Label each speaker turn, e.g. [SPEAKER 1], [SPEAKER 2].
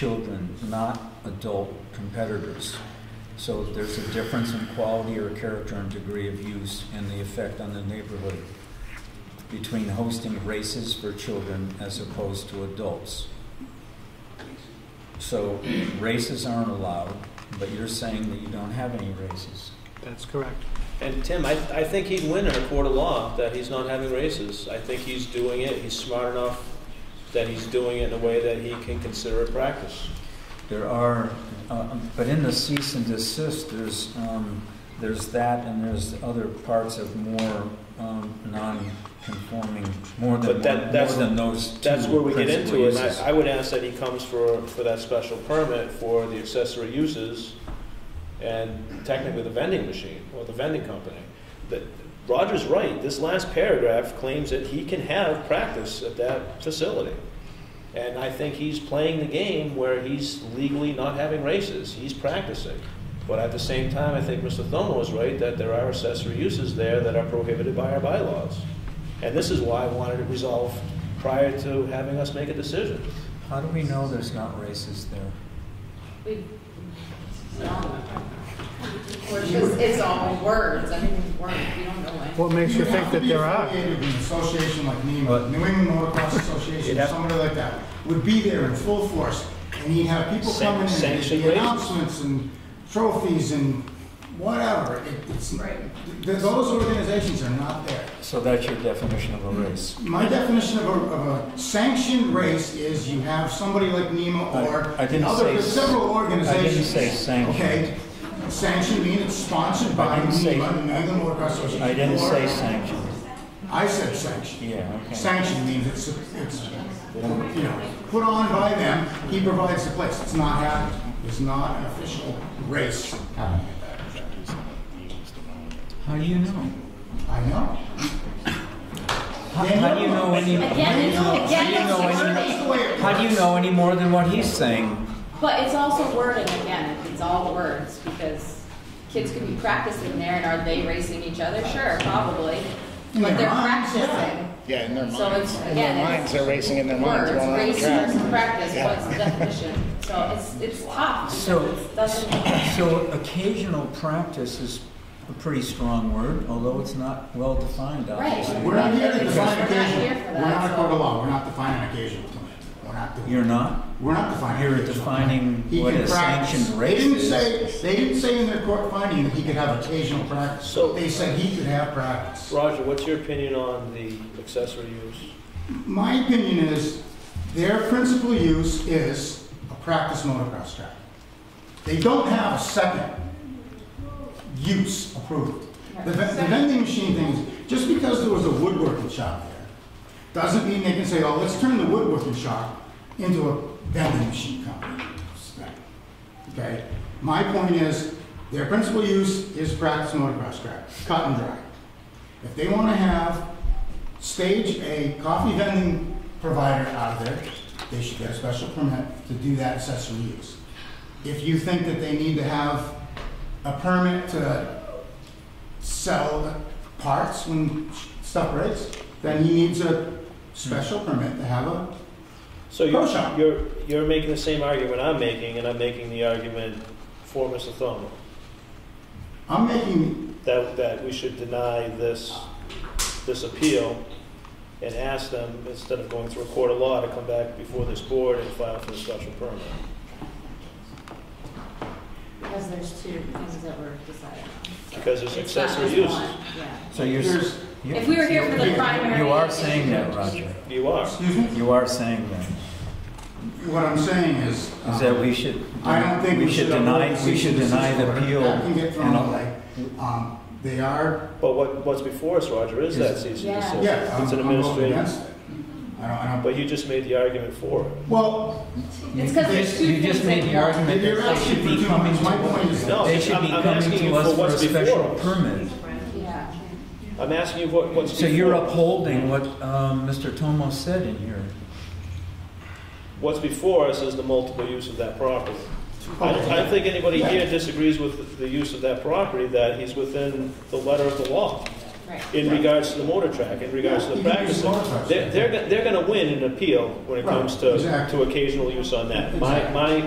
[SPEAKER 1] children, not adult competitors. So there's a difference in quality or character and degree of use and the effect on the neighborhood between hosting races for children as opposed to adults. So races aren't allowed, but you're saying that you don't have any races.
[SPEAKER 2] That's correct.
[SPEAKER 3] And Tim, I, I think he'd win in a court of law that he's not having races. I think he's doing it, he's smart enough that he's doing it in a way that he can consider it practice.
[SPEAKER 1] There are, uh, but in the cease and desist, there's, um, there's that and there's other parts of more, um, non-conforming, more than,
[SPEAKER 3] But that-
[SPEAKER 1] more
[SPEAKER 3] that's-
[SPEAKER 1] than those two
[SPEAKER 3] That's where we get
[SPEAKER 1] principal
[SPEAKER 3] into it, and
[SPEAKER 1] uses.
[SPEAKER 3] I, I would ask that he comes for, for that special permit for the accessory uses and technically the vending machine or the vending company. That, Roger's right, this last paragraph claims that he can have practice at that facility. And I think he's playing the game where he's legally not having races, he's practicing. But at the same time, I think Mr. Thomo is right that there are accessory uses there that are prohibited by our bylaws. And this is why I wanted it resolved prior to having us make a decision.
[SPEAKER 1] How do we know there's not races there?
[SPEAKER 4] We, no. Or it's just, it's all words, I mean, words, we don't know it.
[SPEAKER 2] What makes you
[SPEAKER 5] have
[SPEAKER 2] think
[SPEAKER 5] to
[SPEAKER 2] that
[SPEAKER 5] be
[SPEAKER 2] there are?
[SPEAKER 5] affiliated with an association like
[SPEAKER 1] But-
[SPEAKER 5] NEMA, New England Motocross Association,
[SPEAKER 3] You'd have-
[SPEAKER 5] somebody like that, would be there in full force, and you'd have people
[SPEAKER 3] San-
[SPEAKER 5] coming in, and
[SPEAKER 3] sanctioned
[SPEAKER 5] the
[SPEAKER 3] races.
[SPEAKER 5] announcements and trophies and whatever. It- It's, th- those organizations are not there.
[SPEAKER 1] So that's your definition of a
[SPEAKER 3] Hmm.
[SPEAKER 1] race?
[SPEAKER 5] My definition of a, of a sanctioned race is you have somebody like
[SPEAKER 1] I-
[SPEAKER 5] NEMA or
[SPEAKER 1] I didn't
[SPEAKER 5] other,
[SPEAKER 1] say-
[SPEAKER 5] there's several
[SPEAKER 1] I
[SPEAKER 5] organizations.
[SPEAKER 1] didn't say sanctioned.
[SPEAKER 5] Okay, sanctioned means it's sponsored by
[SPEAKER 1] didn't say-
[SPEAKER 5] NEMA, New England Motocross Association.
[SPEAKER 1] I didn't
[SPEAKER 5] or-
[SPEAKER 1] say sanctioned.
[SPEAKER 5] I said sanctioned.
[SPEAKER 1] Yeah, okay.
[SPEAKER 5] Sanction means it's, it's, you know, put on by them, he provides the place. It's not happening. It's not an official race happening at that.
[SPEAKER 1] How do you know?
[SPEAKER 5] I know.
[SPEAKER 1] How how do you know any,
[SPEAKER 4] Again, it's, again, it's
[SPEAKER 5] That's
[SPEAKER 4] wording,
[SPEAKER 5] the way it
[SPEAKER 1] how do you know any more than what he's saying?
[SPEAKER 4] but it's also wording, again, it's all words, because kids could be practicing there, and are they racing each other? Sure, probably,
[SPEAKER 5] In
[SPEAKER 4] but
[SPEAKER 5] their
[SPEAKER 4] they're
[SPEAKER 5] minds, yeah.
[SPEAKER 4] practicing.
[SPEAKER 6] Yeah, in their minds.
[SPEAKER 4] So it's,
[SPEAKER 6] In their
[SPEAKER 4] again,
[SPEAKER 6] minds,
[SPEAKER 4] it's
[SPEAKER 6] they're racing in their minds
[SPEAKER 4] words,
[SPEAKER 6] going on the track.
[SPEAKER 4] races, practice,
[SPEAKER 6] Yeah.
[SPEAKER 4] what's the definition? So it's, it's tough,
[SPEAKER 1] So-
[SPEAKER 4] because it doesn't.
[SPEAKER 1] So occasional practice is a pretty strong word, although it's not well-defined, obviously.
[SPEAKER 4] Right.
[SPEAKER 5] We're not here to
[SPEAKER 4] We're
[SPEAKER 5] define
[SPEAKER 4] not
[SPEAKER 5] occasion.
[SPEAKER 4] here for that,
[SPEAKER 5] We're not a court
[SPEAKER 4] so-
[SPEAKER 5] of law. We're not defining occasion tonight. We're not doing.
[SPEAKER 1] You're not?
[SPEAKER 5] We're not defining.
[SPEAKER 1] You're
[SPEAKER 5] occasion.
[SPEAKER 1] defining
[SPEAKER 5] He
[SPEAKER 1] what
[SPEAKER 5] can
[SPEAKER 1] a
[SPEAKER 5] practice.
[SPEAKER 1] sanctioned
[SPEAKER 5] They didn't
[SPEAKER 1] race is.
[SPEAKER 5] say, they didn't say in their court finding that he could have occasional practice.
[SPEAKER 3] So-
[SPEAKER 5] They said he could have practice.
[SPEAKER 3] Roger, what's your opinion on the accessory use?
[SPEAKER 5] My opinion is their principal use is a practice motocross track. They don't have a second use approved. The ve- the vending machine thing, is just because there was a woodworking shop there, doesn't mean they can say, oh, let's turn the woodworking shop into a vending machine company. Okay? My point is, their principal use is practice motocross track, cut and dry. If they want to have stage a coffee vending provider out of there, they should get a special permit to do that accessory use. If you think that they need to have a permit to sell parts when stuff breaks, then he needs a special permit to have a,
[SPEAKER 3] So
[SPEAKER 5] Pro shop.
[SPEAKER 3] you're, you're, you're making the same argument I'm making, and I'm making the argument for Mr. Thomo,
[SPEAKER 5] I'm making,
[SPEAKER 3] that, that we should deny this, this appeal and ask them, instead of going through a court of law, to come back before this board and file for a special permit.
[SPEAKER 4] Because there's two things that were decided on. so
[SPEAKER 3] Because there's
[SPEAKER 4] it's not
[SPEAKER 3] accessory
[SPEAKER 4] just
[SPEAKER 3] use.
[SPEAKER 4] one, yeah.
[SPEAKER 1] So you're,
[SPEAKER 5] There's-
[SPEAKER 1] s- you-
[SPEAKER 4] If we were here for the primary.
[SPEAKER 1] you are saying that, Roger.
[SPEAKER 3] You are.
[SPEAKER 5] excuse me,
[SPEAKER 1] You are saying that.
[SPEAKER 5] what I'm saying is. um,
[SPEAKER 1] Is that we should,
[SPEAKER 5] I don't think we should.
[SPEAKER 1] deny,
[SPEAKER 5] uphold the
[SPEAKER 1] we should
[SPEAKER 5] cease and
[SPEAKER 1] deny
[SPEAKER 5] desist
[SPEAKER 1] the
[SPEAKER 5] order.
[SPEAKER 1] appeal.
[SPEAKER 5] That can get thrown
[SPEAKER 1] and-
[SPEAKER 5] away. Um, They are,
[SPEAKER 3] But what, what's before us, Roger, is that cease and
[SPEAKER 4] Yeah.
[SPEAKER 3] desist.
[SPEAKER 5] yeah, I'm
[SPEAKER 3] It's an
[SPEAKER 5] I'm voting
[SPEAKER 3] administrative,
[SPEAKER 5] against it. I don't, I don't,
[SPEAKER 3] but you just made the argument for it.
[SPEAKER 5] well,
[SPEAKER 4] It's 'cause there's two
[SPEAKER 1] You just
[SPEAKER 4] things
[SPEAKER 1] made
[SPEAKER 4] that
[SPEAKER 1] the
[SPEAKER 4] you-
[SPEAKER 1] argument
[SPEAKER 5] You're
[SPEAKER 1] that they
[SPEAKER 5] asking
[SPEAKER 1] should
[SPEAKER 5] for
[SPEAKER 1] be
[SPEAKER 5] too
[SPEAKER 1] coming
[SPEAKER 5] much. My point is-
[SPEAKER 1] to,
[SPEAKER 3] No,
[SPEAKER 1] they should be
[SPEAKER 3] I'm- I'm
[SPEAKER 1] coming
[SPEAKER 3] asking
[SPEAKER 1] to
[SPEAKER 3] you
[SPEAKER 1] us
[SPEAKER 3] for
[SPEAKER 1] for a
[SPEAKER 3] what's
[SPEAKER 1] special
[SPEAKER 3] before us.
[SPEAKER 1] permit.
[SPEAKER 4] Yeah.
[SPEAKER 3] I'm asking you what, what's
[SPEAKER 1] So you're
[SPEAKER 3] before,
[SPEAKER 1] upholding what um, Mr. Tomo said in here.
[SPEAKER 3] what's before us is the multiple use of that property. I don't, I don't think anybody here disagrees with the use of that property, that he's within the letter of the law.
[SPEAKER 4] Right.
[SPEAKER 3] in regards to the motor track, in regards to the
[SPEAKER 5] Yeah, you can
[SPEAKER 3] practice.
[SPEAKER 5] use motor tracks.
[SPEAKER 3] They're, they're, go- they're gonna win an appeal when it
[SPEAKER 5] Right,
[SPEAKER 3] comes to,
[SPEAKER 5] exactly.
[SPEAKER 3] to occasional use on that. My, my,